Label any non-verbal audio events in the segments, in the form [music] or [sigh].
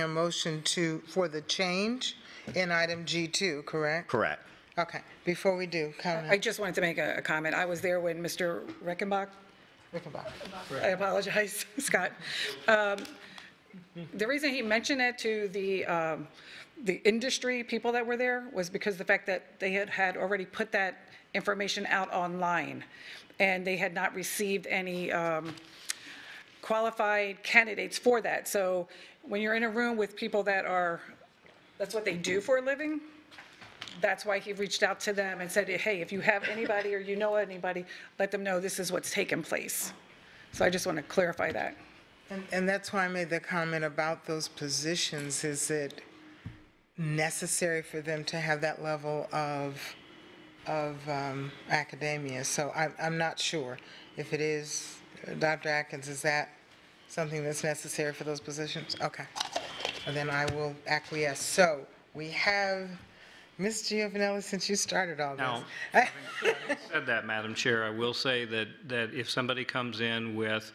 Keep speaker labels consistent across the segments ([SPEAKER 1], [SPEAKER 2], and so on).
[SPEAKER 1] A motion to, for the change in item G2, correct?
[SPEAKER 2] Correct.
[SPEAKER 1] Okay, before we do,
[SPEAKER 3] I
[SPEAKER 1] Councilman
[SPEAKER 3] just wanted to make a a comment. I was there when Mr. Reckenbach,
[SPEAKER 1] Rickenbacher.
[SPEAKER 3] I apologize, [laughs] Scott. Um, The reason he mentioned it to the, um, the industry people that were there was because the fact that they had, had already put that information out online, and they had not received any, um, qualified candidates for that. So when you're in a room with people that are, that's what they do for a living, that's why he reached out to them and said, hey, if you have anybody or you know anybody, let them know this is what's taken place. So I just want to clarify that.
[SPEAKER 1] And- And that's why I made the comment about those positions. Is it necessary for them to have that level of, of um, academia? So I'm, I'm not sure. If it is, Dr. Atkins, is that something that's necessary for those positions? Okay. And then I will acquiesce. So we have, Ms. Giovanelli, since you started all
[SPEAKER 4] Now,
[SPEAKER 1] this. [laughs]
[SPEAKER 4] said that, Madam Chair, I will say that, that if somebody comes in with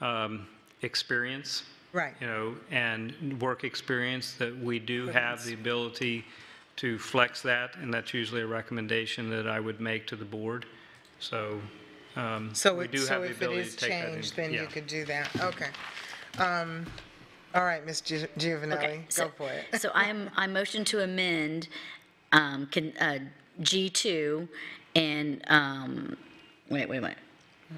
[SPEAKER 4] um, experience,
[SPEAKER 1] Right.
[SPEAKER 4] you know, and work experience, that we do have the ability to flex that, and that's usually a recommendation that I would make to the board. So um,
[SPEAKER 1] So
[SPEAKER 4] we
[SPEAKER 1] it-
[SPEAKER 4] do
[SPEAKER 1] so
[SPEAKER 4] have the
[SPEAKER 1] if it
[SPEAKER 4] ability
[SPEAKER 1] is
[SPEAKER 4] to take that. in-
[SPEAKER 1] changed, then you
[SPEAKER 4] yeah.
[SPEAKER 1] could do that, okay. Um, All right, Ms. Gi-
[SPEAKER 5] Okay,
[SPEAKER 1] Giovanelli,
[SPEAKER 5] so-
[SPEAKER 1] go for it.
[SPEAKER 5] So I'm, I motion to amend um, con- uh, G2 and, um, wait, wait, wait.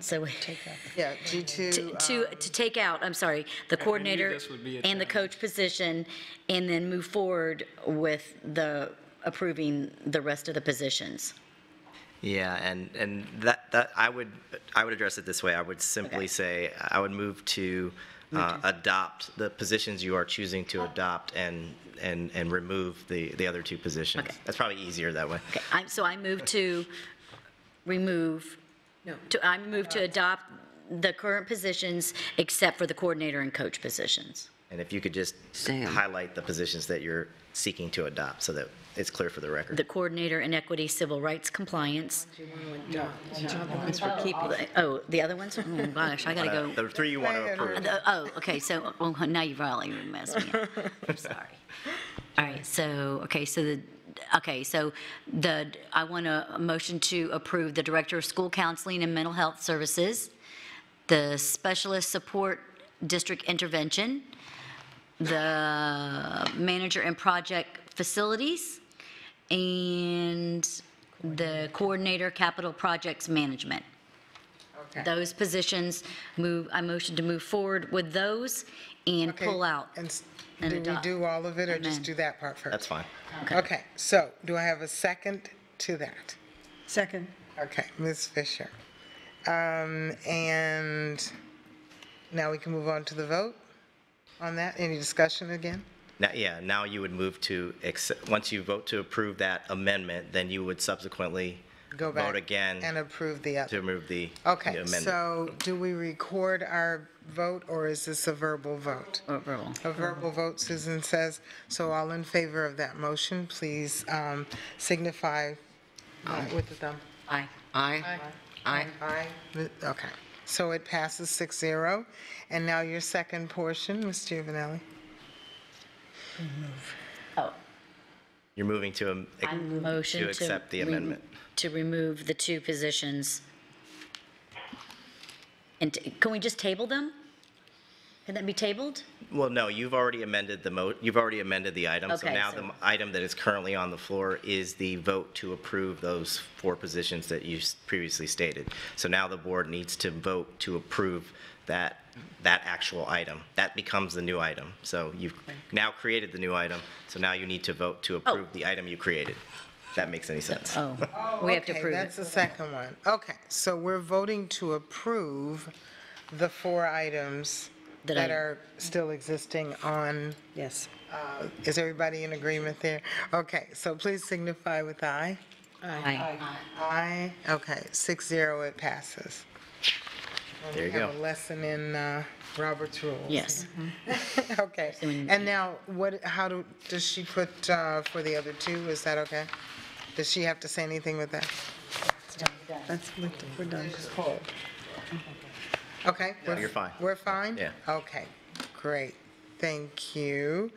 [SPEAKER 5] So,
[SPEAKER 1] [laughs] Yeah, [laughs] uh,
[SPEAKER 5] to,
[SPEAKER 1] G2,
[SPEAKER 5] [laughs] to to take out, I'm sorry, the coordinator
[SPEAKER 4] this would be a
[SPEAKER 5] and the coach position, and then move forward with the, approving the rest of the positions.
[SPEAKER 2] Yeah, and, and that, that, I would, I would address it this way. I would simply
[SPEAKER 5] Okay.
[SPEAKER 2] say, I would move to uh, adopt the positions you are choosing to adopt and, and, and remove the, the other two positions.
[SPEAKER 5] Okay.
[SPEAKER 2] That's probably easier that way.
[SPEAKER 5] Okay, I'm, so I move to remove, to, I move to adopt the current positions except for the coordinator and coach positions.
[SPEAKER 2] And if you could just highlight the positions that you're seeking to adopt so that it's clear for the record.
[SPEAKER 5] the coordinator in equity, civil rights compliance. Oh, the other ones? Oh, gosh, I gotta
[SPEAKER 2] Uh, [laughs]
[SPEAKER 5] go.
[SPEAKER 2] The three you want to approve.
[SPEAKER 5] Uh, Oh, okay, so, well, now you've really messed me up. I'm sorry. All right, so, okay, so the, okay, so the, I want a motion to approve the Director of School Counseling and Mental Health Services, the Specialist Support District Intervention, the Manager and Project Facilities, and the Coordinator Capital Projects Management. Those positions move, I motion to move forward with those and
[SPEAKER 1] okay,
[SPEAKER 5] pull out.
[SPEAKER 1] and s-
[SPEAKER 5] and
[SPEAKER 1] Do we
[SPEAKER 5] adopt.
[SPEAKER 1] do all of it, or just
[SPEAKER 5] Amen.
[SPEAKER 1] do that part first?
[SPEAKER 2] That's fine.
[SPEAKER 1] Okay, so do I have a second to that?
[SPEAKER 6] Second.
[SPEAKER 1] Okay, Ms. Fisher. Um, And now we can move on to the vote on that? Any discussion again?
[SPEAKER 2] Now, yeah, now you would move to, accept- once you vote to approve that amendment, then you would subsequently
[SPEAKER 1] Go back.
[SPEAKER 2] vote again
[SPEAKER 1] And approve the other.
[SPEAKER 2] to remove the the
[SPEAKER 1] Okay,
[SPEAKER 2] amendment.
[SPEAKER 1] so do we record our vote, or is this a verbal vote?
[SPEAKER 5] Oh, roll.
[SPEAKER 1] A verbal vote, Susan says. So all in favor of that motion, please um, signify uh, with the thumb.
[SPEAKER 5] Aye.
[SPEAKER 6] Aye. Aye.
[SPEAKER 1] Aye. Okay, so it passes 6-0. And now your second portion, Ms. Giovanelli.
[SPEAKER 5] Oh,
[SPEAKER 2] You're moving to, am-
[SPEAKER 5] I motion to.
[SPEAKER 2] accept the
[SPEAKER 5] re-
[SPEAKER 2] amendment.
[SPEAKER 5] To remove the two positions. And t- can we just table them? Can that be tabled?
[SPEAKER 2] well, no, you've already amended the mo, you've already amended the item. So
[SPEAKER 5] Okay,
[SPEAKER 2] now
[SPEAKER 5] so-
[SPEAKER 2] the item that is currently on the floor is the vote to approve those four positions that you s- previously stated. So now the board needs to vote to approve that, that actual item. That becomes the new item. So you've now created the new item, so now you need to vote to approve the item you created. If that makes any sense.
[SPEAKER 5] Oh, we have to
[SPEAKER 1] Okay,
[SPEAKER 5] prove
[SPEAKER 1] That's
[SPEAKER 5] it.
[SPEAKER 1] the second one. Okay, so we're voting to approve the four items
[SPEAKER 5] That
[SPEAKER 1] that
[SPEAKER 5] I-
[SPEAKER 1] are still existing on,
[SPEAKER 6] Yes.
[SPEAKER 1] uh, is everybody in agreement there? Okay, so please signify with aye.
[SPEAKER 5] Aye.
[SPEAKER 1] Aye, okay, six zero, it passes.
[SPEAKER 2] There you
[SPEAKER 1] Have
[SPEAKER 2] go.
[SPEAKER 1] a lesson in uh, Robert's rules.
[SPEAKER 5] Yes.
[SPEAKER 1] [laughs] Okay, and now, what, how do, does she put uh, for the other two, is that okay? Does she have to say anything with that?
[SPEAKER 6] That's, we're done.
[SPEAKER 1] Okay? we're-
[SPEAKER 2] you're fine.
[SPEAKER 1] We're fine?
[SPEAKER 2] Yeah.
[SPEAKER 1] Okay, great. Thank you.